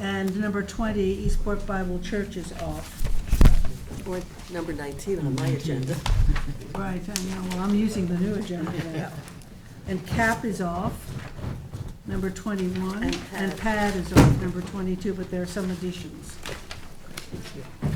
And number 20, Eastport Bible Church is off. Or number 19 on my agenda. Right, I know, well, I'm using the new agenda now. And CAP is off, number 21. And And PAD. PAD is off, number 22, but there are some additions. Okay.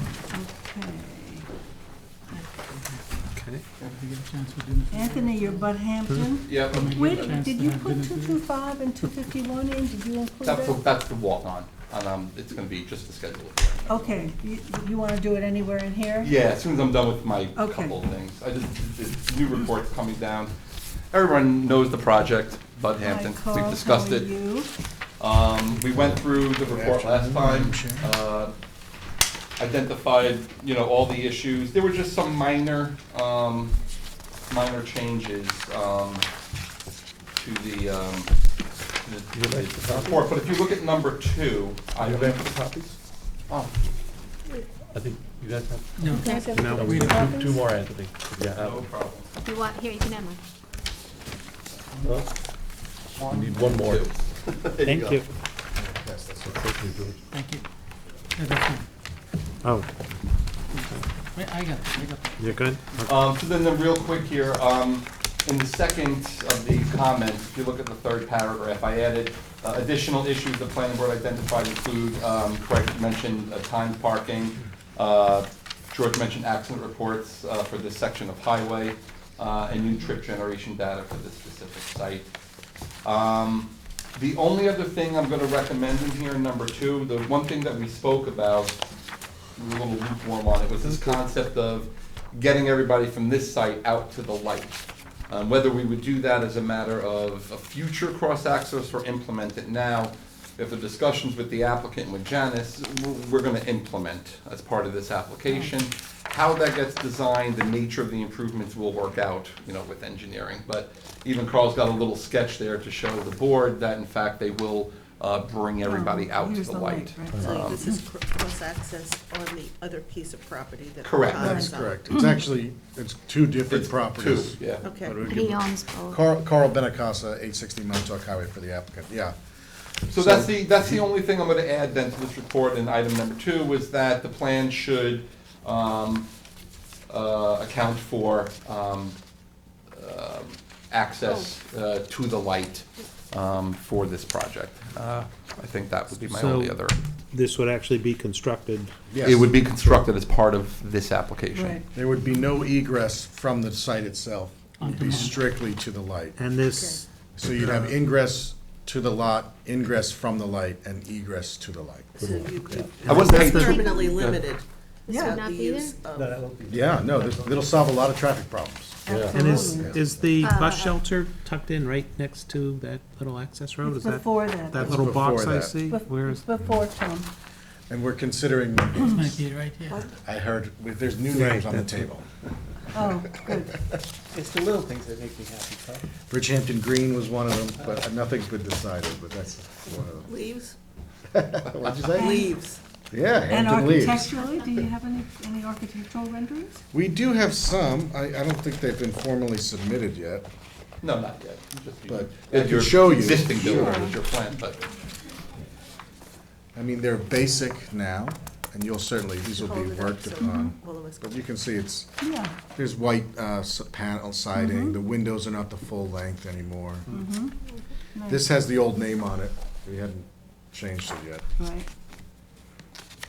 Okay. Did you get a chance to dinner? Anthony, you're Bud Hampton? Yep, Wait, did you put 225 and 251 in? Did you include that's the, that? that's the walk-on, and, um, it's gonna be just the schedule. Okay, you, you want to do it anywhere in here? Yeah, as soon as I'm done with my Okay. couple of things, I just, the new report's coming down. Everyone knows the project, Bud Hi, Hampton, Carl, we've how discussed are it. you? Um, we went through the report last time, uh, identified, you know, all the issues. There were just some minor, um, minor changes, um, to the, um, the- You like the the report. But if you look at number two, I. You have the copies? Oh, I think you guys have. No. You guys have No, the we two have copies? two more, Anthony. Yeah. no uh, problem. You want, here, you can have mine. well, We need one more. Two. There you go. Thank you, George. Thank you. Yeah, that's fine. Oh, Wait, I got it, I got it. you're good? Um, so then, then real quick here, um, in the second of the comments, if you look at the third paragraph, I added uh, additional issues the planning board identified include, um, Craig mentioned uh, timed parking, uh, George mentioned accident reports, uh, for this section of highway, uh, and new trip generation data for this specific site. Um, The only other thing I'm gonna recommend in here, number two, the one thing that we spoke about, we were a little lukewarm on it, was this concept of getting everybody from this site out to the light. Um, Whether we would do that as a matter of a future cross-access or implement it now, if the discussions with the applicant, with Janice, w- we're gonna implement as part of this application. How that gets designed, the nature of the improvements will work out, you know, with engineering. But even Carl's got a little sketch there to show the board that in fact they will uh, bring everybody out to Here's the light. right. Um. So this is cr- cross-access on the other piece of property that. Correct. Tom That's is on. correct. It's actually, it's two different It's properties. two, yeah. Okay. But we He give- owns both. Carl, Carl Benacasa, eight sixty Montauk Highway for the applicant, yeah. So that's the, that's the only thing I'm gonna add then to this report in item number two, was that the plan should, um, uh, account for, um, um, access, uh, to the light, um, for this project. Uh, I think that would be my only So- other. This would actually be constructed, Yes. It would be constructed as part of this application. Right. There would be no egress from the site itself. It'd be strictly to the light. and this, So you'd have ingress to the lot, ingress from the light, and egress to the light. So you could. I wasn't paying too- Permanently limited. This about would the not be use there? of- Yeah, no, this- it'll solve a lot of traffic problems. and is, Absolutely. is the Uh, bus shelter tucked in right next to that little access road? Is that, Before that. that It's little box before I that. see? Bef- Where is, Before Tom. And we're considering, This might be right here. I heard, there's new names on the table. Oh, good. It's the little things that make me happy, Carl. Bridgehampton Green was one of them, but nothing's been decided, but that's one of Leaves, them. What'd you say? leaves. Yeah, And Hampton Leaves. architecturally, do you have any, any architectural renderings? We do have some, I, I don't think they've been formally submitted yet. No, not yet, just. you- But it's I can your show you. Existing building is your plan, but. I mean, they're basic now, and you'll certainly, these will be Hold it up worked so upon. all of us But can- you can see it's, Yeah. there's white, uh, s- panel Mm-hmm. siding, the windows are not the full length anymore. This has the old name on it, we hadn't changed it yet, Right,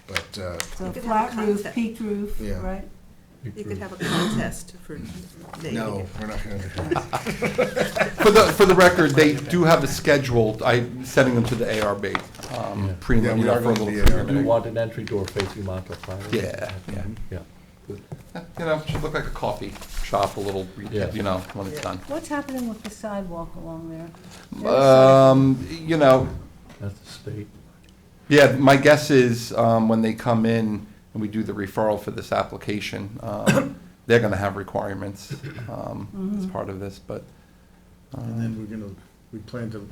but, uh, so You could have a flat roof, concept. peaked roof, Yeah. right? You could have a contest for naming no, it. we're not gonna do that. For the, for the record, they do have a schedule, I'm sending them to the ARB, um, pre, Yeah, you we know, are for a going to little. the preliminary. ARB. You want an entry door facing Montauk Highway? Yeah, yeah. Yeah. You know, it should look like a coffee shop, a little, Yeah. you know, when it's done. What's happening with the sidewalk along there? Uh, Um, you know, That's the state. yeah, my guess is, um, when they come in and we do the referral for this application, um, they're gonna have requirements, um, as part of this, but, And then we're gonna, we plan to,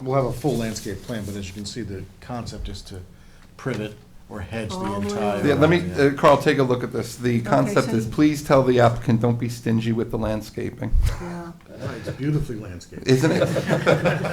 we'll have a full landscape plan, but as you can see, the concept is to print it or hedge the All the way entire. around. yeah, let me, Yeah. uh, Carl, take a look at this. The concept so- is, please tell the applicant, don't be stingy with the landscaping, Yeah. It's beautifully landscaped. isn't it?